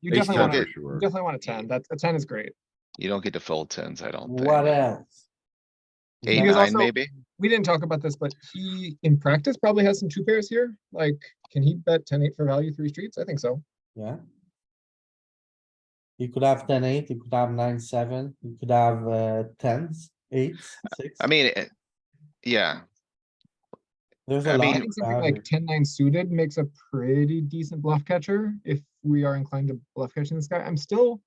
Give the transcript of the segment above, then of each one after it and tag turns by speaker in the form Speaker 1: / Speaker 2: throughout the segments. Speaker 1: You
Speaker 2: Ace
Speaker 1: definitely
Speaker 2: ten
Speaker 1: want to,
Speaker 2: for
Speaker 1: you
Speaker 2: sure.
Speaker 1: definitely want a ten. That, a ten is great.
Speaker 3: You don't get to fold tens, I don't
Speaker 4: What
Speaker 3: think.
Speaker 4: else?
Speaker 3: Eight,
Speaker 1: Because
Speaker 3: nine,
Speaker 1: also-
Speaker 3: maybe?
Speaker 1: We didn't talk about this, but he in practice probably has some two pairs here. Like, can he bet ten eight for value three streets? I think so.
Speaker 4: Yeah. You could have ten, eight, you could have nine, seven, you could have uh, tens, eights, six.
Speaker 3: I mean, it- yeah,
Speaker 4: There's
Speaker 3: I
Speaker 4: a
Speaker 1: I
Speaker 4: lot.
Speaker 3: mean-
Speaker 1: think
Speaker 4: to
Speaker 1: something
Speaker 4: have
Speaker 1: like
Speaker 4: here.
Speaker 1: ten nine suited makes a pretty decent bluff catcher if we are inclined to bluff catching this guy. I'm still,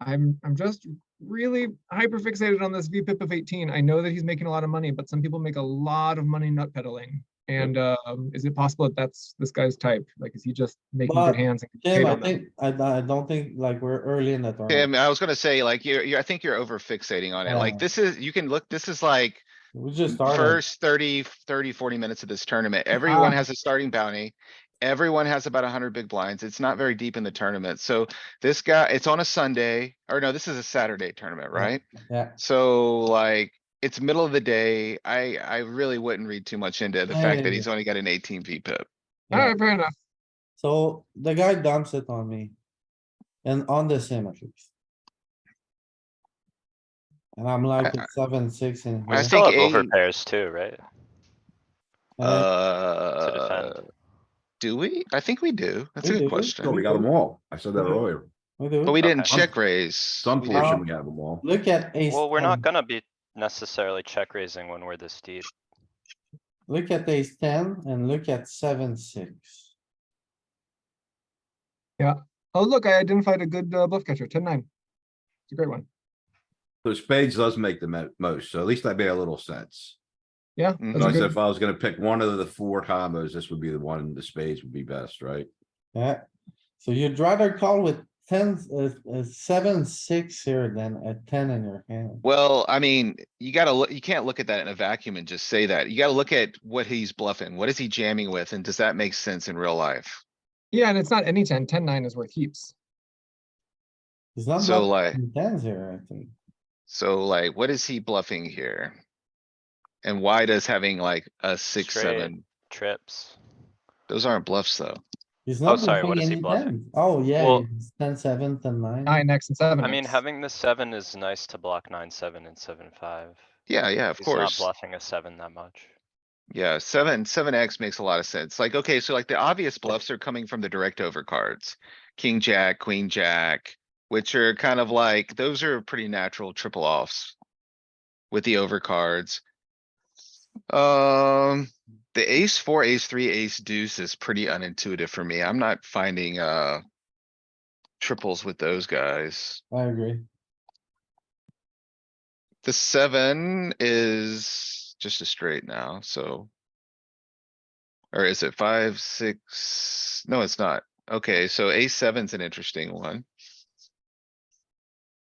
Speaker 1: I'm, I'm just really hyper fixated on this VPIP of eighteen. I know that he's making a lot of money, but some people make a lot of money nut peddling. And, um, is it possible that that's this guy's type? Like, is he just making
Speaker 4: But,
Speaker 1: good hands? and getting
Speaker 4: Tim,
Speaker 1: paid
Speaker 4: I
Speaker 1: on them?
Speaker 4: think, I, I don't think, like, we're early in the
Speaker 3: Tim,
Speaker 4: tournament.
Speaker 3: I was gonna say, like, you're, you're, I think you're over fixating on it.
Speaker 4: Yeah.
Speaker 3: Like, this is, you can look, this is like
Speaker 4: We just started.
Speaker 3: first 30, 30, 40 minutes of this tournament. Everyone has a starting bounty. Everyone has about hundred big blinds. It's not very deep in the tournament. So this guy, it's on a Sunday, or no, this is a Saturday tournament,
Speaker 4: Yeah.
Speaker 3: right?
Speaker 4: Yeah.
Speaker 3: So like, it's middle of the day. I, I really wouldn't read too much into the
Speaker 4: Yeah,
Speaker 3: fact
Speaker 4: yeah,
Speaker 3: that he's only got an eighteen V pip.
Speaker 1: All
Speaker 4: Yeah.
Speaker 1: right, fair enough.
Speaker 4: So the guy dumps it on me. And on the sim at least. And I'm like it's seven, six in
Speaker 3: I
Speaker 4: here.
Speaker 3: think
Speaker 5: Still have
Speaker 3: eight-
Speaker 5: over pairs too, right?
Speaker 4: Uh,
Speaker 3: Uh, do we? I think we do. That's a
Speaker 4: We do.
Speaker 2: No, we
Speaker 3: good question.
Speaker 2: got them all. I said that
Speaker 4: Okay.
Speaker 2: earlier.
Speaker 4: we do.
Speaker 3: But we didn't
Speaker 5: Okay.
Speaker 3: check raise.
Speaker 2: Some
Speaker 3: We didn't-
Speaker 2: portion, we have them all.
Speaker 4: Look at ace.
Speaker 5: Well, we're not
Speaker 4: 10.
Speaker 5: gonna be necessarily check raising when we're this deep.
Speaker 4: Look at ace ten and look at seven, six.
Speaker 1: Oh, look, I identified a good uh, bluff catcher, ten nine. It's a great one.
Speaker 2: So spades does make the mo- most, so at least that made a little sense.
Speaker 1: Yeah.
Speaker 3: Mhm.
Speaker 1: that's a
Speaker 2: Like I said,
Speaker 1: good-
Speaker 2: Mm, if I was gonna pick one of the four combos, this would be the one, the spades would be best, right?
Speaker 4: Yeah, so you'd rather call with ten, uh, uh, seven, six here than a ten in your hand.
Speaker 3: Well, I mean, you gotta look, you can't look at that in a vacuum and just say that. You gotta look at what he's bluffing. What is he jamming with? And does that make sense in real life?
Speaker 1: Yeah, and it's not any 10. 10 9 is worth heaps.
Speaker 4: It's not
Speaker 3: So
Speaker 4: much
Speaker 3: like,
Speaker 4: in tens here, I think.
Speaker 3: so like, what is he bluffing here? And why does having like a six,
Speaker 5: Straight.
Speaker 3: seven,
Speaker 5: Trips.
Speaker 3: those aren't bluffs though.
Speaker 4: He's
Speaker 3: Oh,
Speaker 4: not
Speaker 5: sorry, what
Speaker 4: bluffing
Speaker 5: is he
Speaker 4: any
Speaker 5: bluffing?
Speaker 4: 10s. Oh, yeah,
Speaker 5: Well-
Speaker 4: it's ten, seven, ten, nine.
Speaker 1: 9 X and 7.
Speaker 5: I mean,
Speaker 1: X.
Speaker 5: having the seven is nice to block nine, seven and seven, five.
Speaker 3: Yeah, yeah, of
Speaker 5: He's not
Speaker 3: course.
Speaker 5: bluffing a seven that much.
Speaker 3: Yeah, seven, seven X makes a lot of sense. Like, okay, so like the obvious bluffs are coming from the direct over cards. King, jack, queen, jack, which are kind of like, those are pretty natural triple offs. With the over cards. Um, the ace four, ace three, ace deuce is pretty unintuitive for me. I'm not finding, uh. Triples with those guys.
Speaker 4: I agree.
Speaker 3: The seven is just a straight now, so. Or is it five, six? No, it's not. Okay, so a seven's an interesting one.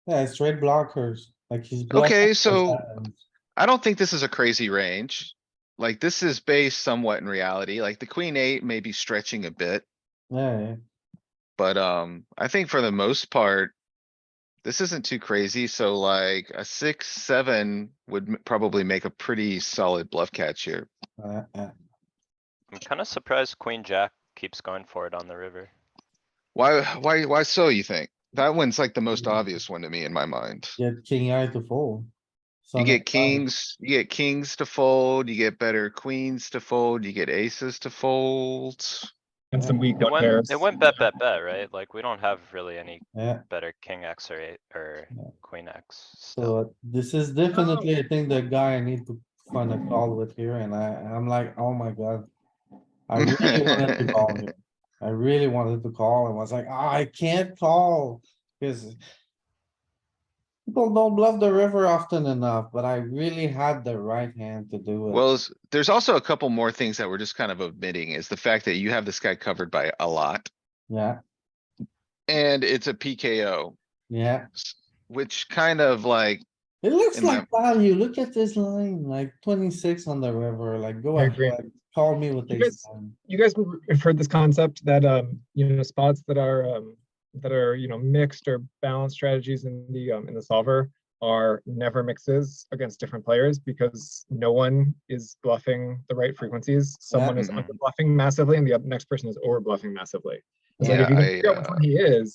Speaker 4: Yeah, it's straight blockers, like he's. bluffing
Speaker 3: Okay,
Speaker 4: the
Speaker 3: so-
Speaker 4: sevens.
Speaker 3: I don't think this is a crazy range. Like, this is based somewhat in reality, like the queen eight may be stretching a bit,
Speaker 4: Yeah, yeah.
Speaker 3: but, um, I think for the most part. This isn't too crazy, so like a six, seven would m- probably make a pretty solid bluff catch here.
Speaker 4: Uh, uh,
Speaker 5: I'm kinda surprised queen jack keeps going for it on the river.
Speaker 3: Why, why, why so you think? That one's like the
Speaker 1: Mm.
Speaker 3: most obvious one to me in my mind.
Speaker 4: Get king eye to fold.
Speaker 3: You
Speaker 4: Some
Speaker 3: get
Speaker 4: of them.
Speaker 3: kings, you get kings to fold, you get better queens to fold, you get aces to fold.
Speaker 1: and some weak
Speaker 5: It
Speaker 1: nut
Speaker 5: went,
Speaker 1: pairs.
Speaker 5: it went bet, bet, bet, right? Like, we don't have really any
Speaker 4: Yeah,
Speaker 5: better king X or eight or queen X. still.
Speaker 4: so uh, this is definitely, I think the guy I need to find a call with here and I, I'm like, oh my god. I really wanted to call here. I really wanted to call and was like, "Ah, I can't call, cause. People don't bluff the river often enough, but I really had the right hand to do it.
Speaker 3: Well, s- there's also a couple more things that we're just kind of omitting is the fact that you have this guy covered by a lot.
Speaker 4: Yeah,
Speaker 3: And it's a PKO,
Speaker 4: yeah.
Speaker 3: which kind of like,
Speaker 4: It looks
Speaker 3: In my-
Speaker 4: like value. Look at this line, like twenty-six on the river, like go
Speaker 1: I agree.
Speaker 4: ahead, call me with
Speaker 1: You
Speaker 4: ace
Speaker 1: guys-
Speaker 4: ten.
Speaker 1: you guys would- have heard this concept that um, you know, spots that are um, that are, you know, mixed or balanced strategies in the um, in the solver are never mixes against different players because no one is bluffing the right frequencies. Someone is
Speaker 3: Mhm.
Speaker 1: under bluffing massively and the oth- next person is over bluffing massively. It's like,
Speaker 3: Yeah,
Speaker 1: if you can
Speaker 3: I,
Speaker 1: figure out which
Speaker 3: uh,
Speaker 1: one he is,